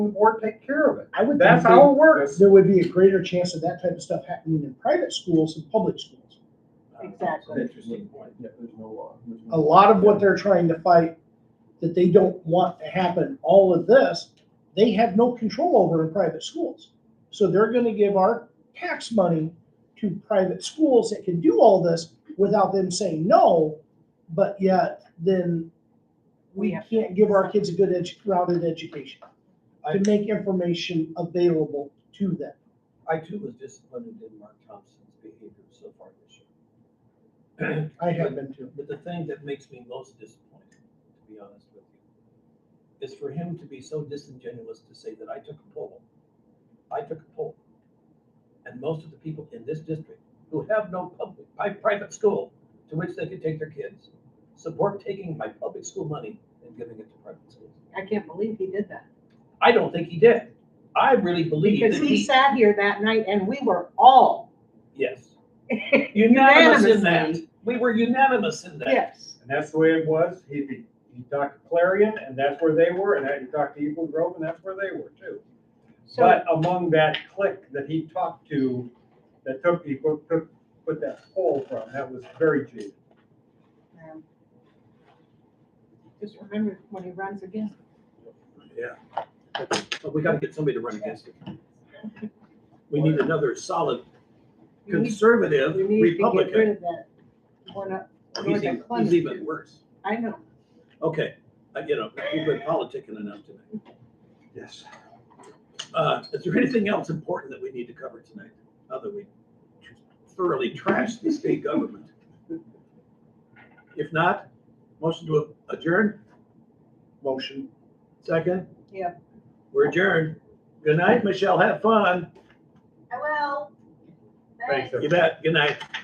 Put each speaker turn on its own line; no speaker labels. board take care of it.
I would.
That's
think
how it works.
There would be a greater chance of that type of stuff happening in private schools than public schools.
Exactly.
Um, Interesting point. Yeah, there's no law. there's no-
A lot of what they're trying to fight that they don't want to happen, all of this, they have no control over in private schools. So they're gonna give our tax money to private schools that can do all this without them saying no, but yet then
We
we
have-
can't give our kids a good edu, rounded education to make information available to them.
I too was disappointed in Mark Thompson's behavior so far this year.
I have been too.
But the thing that makes me most disappointed, to be honest with you, is for him to be so disingenuous to say that I took a poll. I took a poll. And most of the people in this district who have no public, my private school to which they could take their kids, support taking my public school money and giving it to private schools.
I can't believe he did that.
I don't think he did. I really believe
Because
that
he
he,
sat here that night and we were all,
yes. Unanimous in that.
Unanimously.
We were unanimous in that.
yes.
And that's the way it was. He, he- he talked to Clarion and that's where they were, and then he talked to Eagle Grove and that's where they were too.
So,
But among that clique that he talked to, that took, he put, took, put that poll from, that was very cheap.
um, just remember when he runs again.
Yeah. But we gotta get somebody to run against it. We need another solid
You need-
conservative
you need to get rid
Republican.
of that one up
He's
north
even,
of
he's even
Clemens.
worse.
I know.
Okay, I, you know, we've been politicking enough tonight.
Yes.
Uh, is there anything else important that we need to cover tonight? Other we thoroughly trashed the state government? If not, motion to adjourn,
Motion.
second?
Yeah.
We're adjourned. Good night, Michelle, have fun.
I will.
Thanks,
You bet, good night.